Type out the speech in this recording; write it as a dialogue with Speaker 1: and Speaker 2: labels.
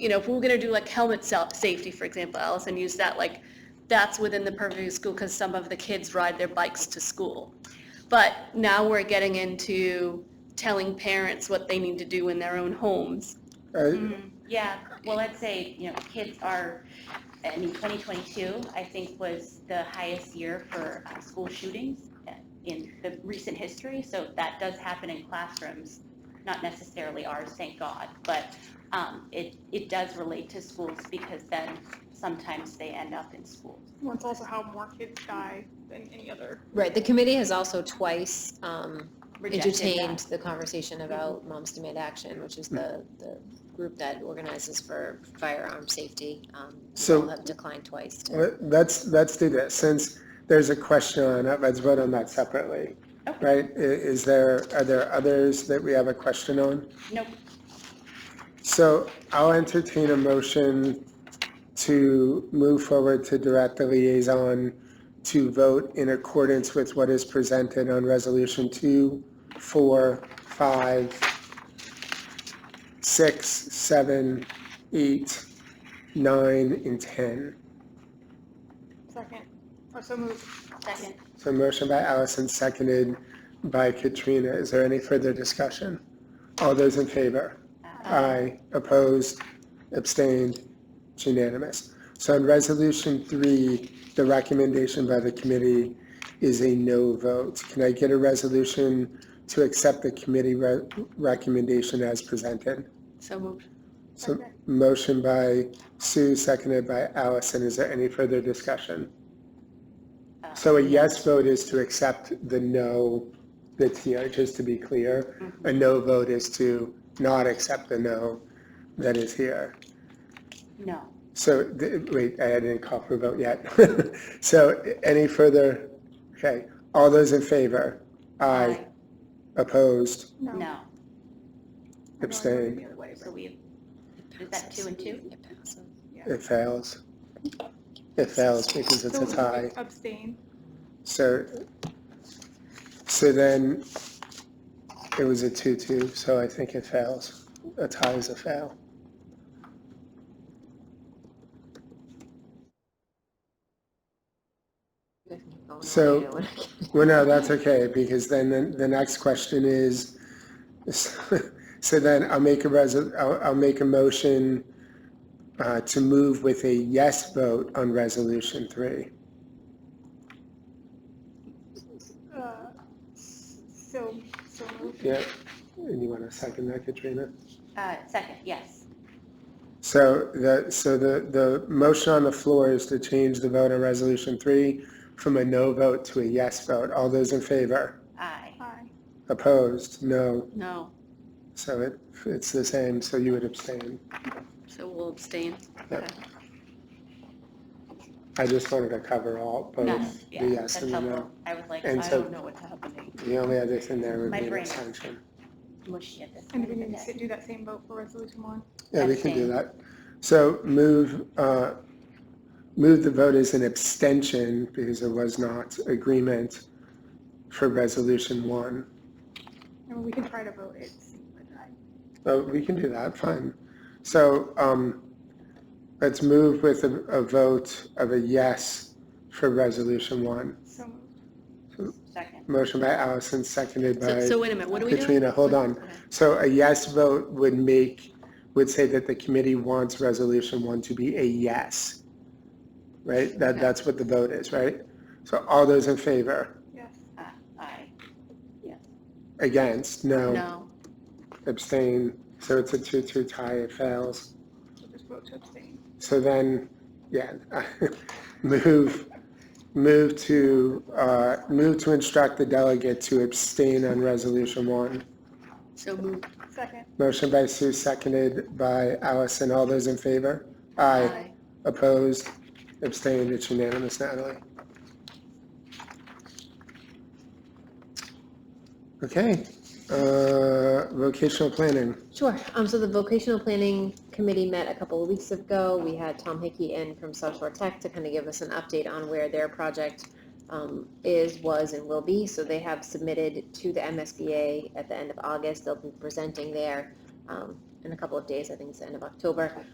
Speaker 1: you know, if we were gonna do like helmet self, safety, for example, Allison used that, like, that's within the purview of school because some of the kids ride their bikes to school. But now we're getting into telling parents what they need to do in their own homes.
Speaker 2: Mm-hmm.
Speaker 3: Right?
Speaker 2: Yeah, well, let's say, you know, kids are, I mean, 2022, I think, was the highest year for uh, school shootings uh, in the recent history, so that does happen in classrooms, not necessarily ours, thank God, but um, it, it does relate to schools because then sometimes they end up in schools.
Speaker 4: Well, it's also how more kids die than any other.
Speaker 5: Right, the committee has also twice um,
Speaker 2: Rejected uh, that.
Speaker 5: entertained the conversation about Moms Demand Action, which is the,
Speaker 3: Mm.
Speaker 5: the group that organizes for firearm safety. um,
Speaker 3: So-
Speaker 5: all Have declined twice to.
Speaker 3: Let- Let's, let's do this, since there's a question on it, let's vote on that separately.
Speaker 2: Okay.
Speaker 3: Right? I- Is there, are there others that we have a question on?
Speaker 2: Nope,
Speaker 3: So I'll entertain a motion to move forward to direct the liaison to vote in accordance with what is presented on Resolution 2, 4, 5, 6, 7, 8, 9, and 10.
Speaker 4: Second, or so moved.
Speaker 2: second.
Speaker 3: So motion by Allison, seconded by Katrina. Is there any further discussion? All those in favor? Aye. Opposed? Abstained? It's unanimous. So on Resolution 3, the recommendation by the committee is a no vote. Can I get a resolution to accept the committee re- recommendation as presented?
Speaker 1: So moved.
Speaker 3: So
Speaker 4: Second.
Speaker 3: motion by Sue, seconded by Allison. Is there any further discussion?
Speaker 2: Uh,
Speaker 3: So a yes vote is to accept the no that's here, just to be clear. A no vote is to not accept the no that is here.
Speaker 2: No,
Speaker 3: So, th- wait, I didn't call for a vote yet. So any further, okay, all those in favor? Aye.
Speaker 2: Aye.
Speaker 3: Opposed?
Speaker 2: no,
Speaker 4: I know I voted
Speaker 3: Abstained.
Speaker 4: the other way,
Speaker 2: so
Speaker 4: but-
Speaker 2: we, is that two and two?
Speaker 5: It passes.
Speaker 3: It fails. It fails because it's
Speaker 4: So
Speaker 3: a
Speaker 4: we
Speaker 3: tie.
Speaker 4: Abstain.
Speaker 3: So, so then, it was a two-two, so I think it fails. A tie is a fail. So- Well, no, that's okay, because then the, the next question is, so then I'll make a resol, I'll, I'll make a motion uh, to move with a yes vote on resolution three.
Speaker 4: Uh, s- So, so moved.
Speaker 3: Yeah, and you want to second that, Katrina?
Speaker 2: Uh, second, yes.
Speaker 3: So the, so the, the motion on the floor is to change the vote on resolution three from a no vote to a yes vote. All those in favor?
Speaker 2: Aye.
Speaker 4: Aye.
Speaker 3: Opposed? No.
Speaker 1: No,
Speaker 3: So it, it's the same, so you would abstain.
Speaker 1: so we'll abstain.
Speaker 3: I just wanted to cover all, both
Speaker 2: Yes,
Speaker 3: the
Speaker 2: yeah, that's
Speaker 3: yes and the
Speaker 2: helpful.
Speaker 3: no.
Speaker 2: I was like, I
Speaker 3: And so-
Speaker 2: don't know what's happening.
Speaker 3: The only other thing there would
Speaker 2: My
Speaker 3: be an
Speaker 2: brain.
Speaker 3: abstention.
Speaker 2: Mushy at this
Speaker 4: And
Speaker 2: point
Speaker 4: we
Speaker 2: of the
Speaker 4: need to
Speaker 2: day.
Speaker 4: do that same vote for resolution one.
Speaker 3: Yeah, we can do
Speaker 2: Abstain.
Speaker 3: that. So move, uh, move the vote as an abstention because there was not agreement for resolution one.
Speaker 4: And we can try to vote it. but I-
Speaker 3: Oh, we can do that, fine. So, um, let's move with a, a vote of a yes for resolution one.
Speaker 4: So moved.
Speaker 2: Second,
Speaker 3: Motion by Allison, seconded
Speaker 1: So,
Speaker 3: by
Speaker 1: so wait a minute, what are we doing?
Speaker 3: Katrina, hold on.
Speaker 1: Okay.
Speaker 3: So a yes vote would make, would say that the committee wants resolution one to be a yes. Right? That,
Speaker 1: Okay.
Speaker 3: that's what the vote is, right? So all those in favor?
Speaker 4: Yes.
Speaker 2: uh, aye.
Speaker 3: Against? No.
Speaker 1: No,
Speaker 3: Abstain? So it's a two-two tie, it fails.
Speaker 4: So Just vote to abstain.
Speaker 3: So then, yeah, move, move to, uh, move to instruct the delegate to abstain on resolution one.
Speaker 1: so moved.
Speaker 4: Second.
Speaker 3: Motion by Sue, seconded by Allison. All those in favor? Aye. Opposed? Abstained? It's unanimous, Natalie. Okay, uh, vocational planning.
Speaker 5: Sure. Um, so the vocational planning committee met a couple of weeks ago. We had Tom Hickey in from South Shore Tech to kind of give us an update on where their project um, is, was, and will be. So they have submitted to the MSBA at the end of August. They'll be presenting there um, in a couple of days. I think it's the end of October.